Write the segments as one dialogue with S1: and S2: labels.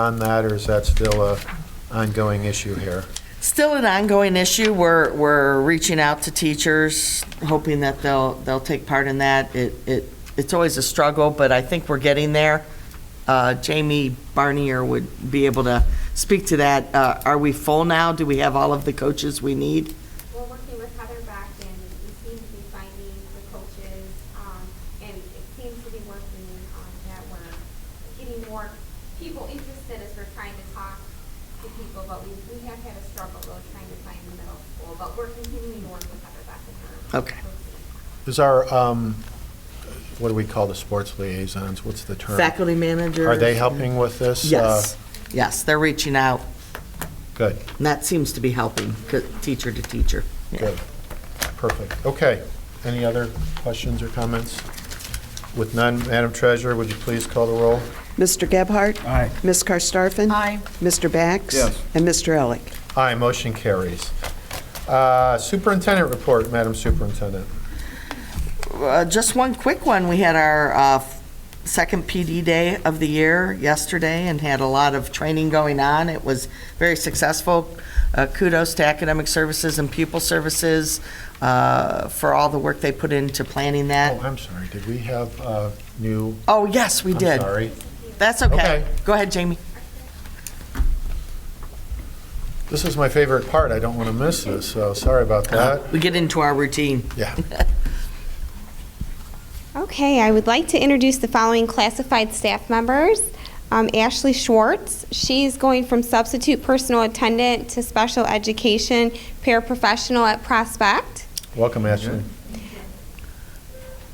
S1: on that, or is that still a ongoing issue here?
S2: Still an ongoing issue. We're, we're reaching out to teachers, hoping that they'll, they'll take part in that. It, it, it's always a struggle, but I think we're getting there. Uh, Jamie Barnier would be able to speak to that. Uh, are we full now? Do we have all of the coaches we need?
S3: We're working with Heather back and we seem to be finding the coaches, um, and it seems to be working, um, that we're getting more people interested as we're trying to talk to people, but we, we have had a struggle though trying to find the middle school, but we're continuing to work with Heather back and her.
S2: Okay.
S1: Is our, um, what do we call the sports liaisons? What's the term?
S2: Faculty managers?
S1: Are they helping with this?
S2: Yes,
S1: Uh,
S2: yes, they're reaching out.
S1: Good,
S2: And that seems to be helping, c- teacher to teacher. Yeah.
S1: good, perfect. Okay, any other questions or comments? With none, Madam Treasurer, would you please call the roll?
S4: Mr. Gebhardt?
S5: Aye.
S4: Ms. Karstafen?
S6: Aye.
S4: Mr. Bax?
S5: Yes.
S4: And Mr. Elick?
S1: Aye, motion carries. Uh, Superintendent report, Madam Superintendent.
S2: Uh, just one quick one. We had our uh, second PD day of the year yesterday and had a lot of training going on. It was very successful. Uh, Kudos to Academic Services and Pupil Services uh, for all the work they put into planning
S1: Oh,
S2: that.
S1: I'm sorry, did we have uh, new?
S2: Oh, yes, Uh, we did.
S1: I'm sorry.
S2: That's okay.
S1: Okay.
S2: Go ahead, Jamie.
S1: This is my favorite part. I don't want to miss this, so sorry about that.
S2: We get into our routine.
S1: Yeah.
S3: Okay, I would like to introduce the following classified staff members. Um, Ashley Schwartz, she's going from substitute personal attendant to special education paraprofessional at Prospect.
S1: Welcome, Ashley.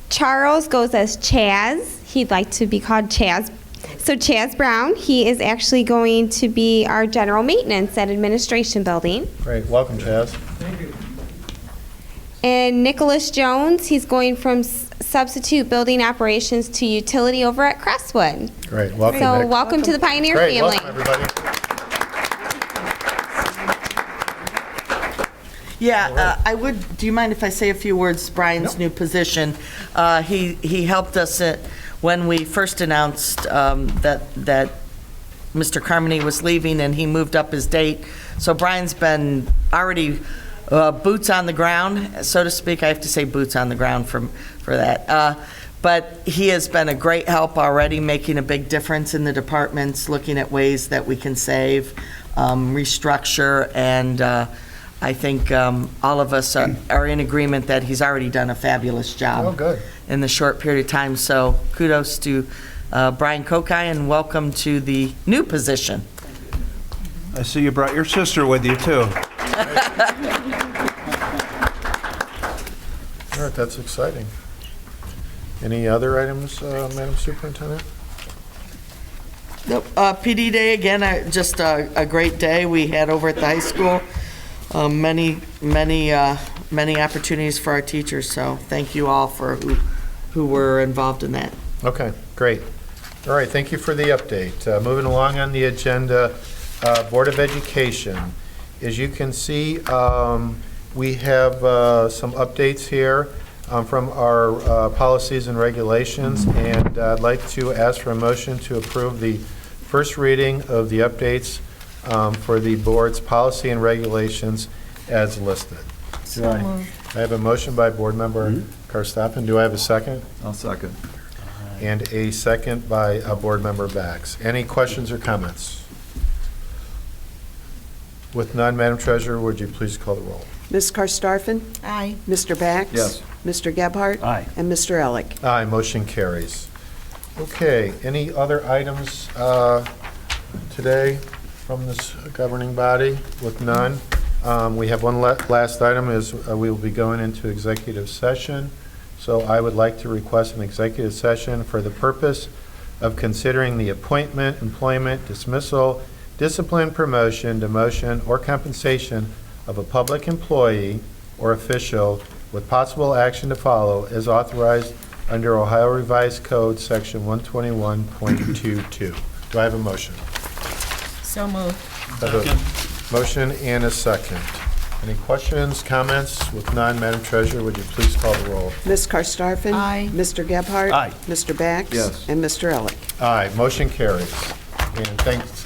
S3: Charles goes as Chaz. He'd like to be called Chaz. So Chaz Brown, he is actually going to be our general maintenance at administration building.
S1: Great, welcome, Chaz.
S3: And Nicholas Jones, he's going from s- substitute building operations to utility over at Crestwood.
S1: Great, welcome,
S3: So
S1: Nick.
S3: welcome to the Pioneer
S1: Great,
S3: family.
S1: welcome, everybody.
S2: Yeah, uh, I would, do you mind if I say a few words, Brian's new position? Uh, He, he helped us at- when we first announced um, that, that Mr. Carmody was leaving and he moved up his date. So Brian's been already uh, boots on the ground, so to speak. I have to say boots on the ground for, for that. Uh, But he has been a great help already, making a big difference in the departments, looking at ways that we can save, um, restructure, and uh, I think um, all of us are are in agreement that he's already done a fabulous job
S1: Oh, good.
S2: in the short period of time. So kudos to uh, Brian Kokai and welcome to the new position.
S5: I see you brought your sister with you, too.
S1: All right, that's exciting. Any other items, uh, Madam Superintendent?
S2: Nope. Uh, PD Day, again, I- just a a great day we had over at the high school. Um, Many, many, uh, many opportunities for our teachers, so thank you all for who who were involved in that.
S1: Okay, great. All right, thank you for the update. Uh, Moving along on the agenda, uh, Board of Education. As you can see, um, we have uh, some updates here um, from our uh, policies and regulations, and I'd like to ask for a motion to approve the first reading of the updates um, for the board's policy and regulations as listed. Do I I have a motion by Board Member Karstoffen. Do I have a second?
S5: I'll second.
S1: And a second by a board member Bax. Any questions or comments? With none, Madam Treasurer, would you please call the roll?
S4: Ms. Karstafen?
S6: Aye.
S4: Mr. Bax?
S5: Yes.
S4: Mr. Gebhardt?
S5: Aye.
S4: And Mr. Elick?
S1: Aye, motion carries. Okay, any other items uh, today from this governing body? With none, um, we have one la- last item is uh, we will be going into executive session. So I would like to request an executive session for the purpose of considering the appointment, employment, dismissal, discipline, promotion, demotion, or compensation of a public employee or official with possible action to follow as authorized under Ohio Revised Code, Section 121.22. Do I have a motion?
S6: So moved.
S1: I have a Motion and a second. Any questions, comments? With none, Madam Treasurer, would you please call the roll?
S4: Ms. Karstafen?
S6: Aye.
S4: Mr. Gebhardt?
S5: Aye.
S4: Mr. Bax?
S5: Yes.
S4: And Mr. Elick?
S1: Aye, motion carries. And thanks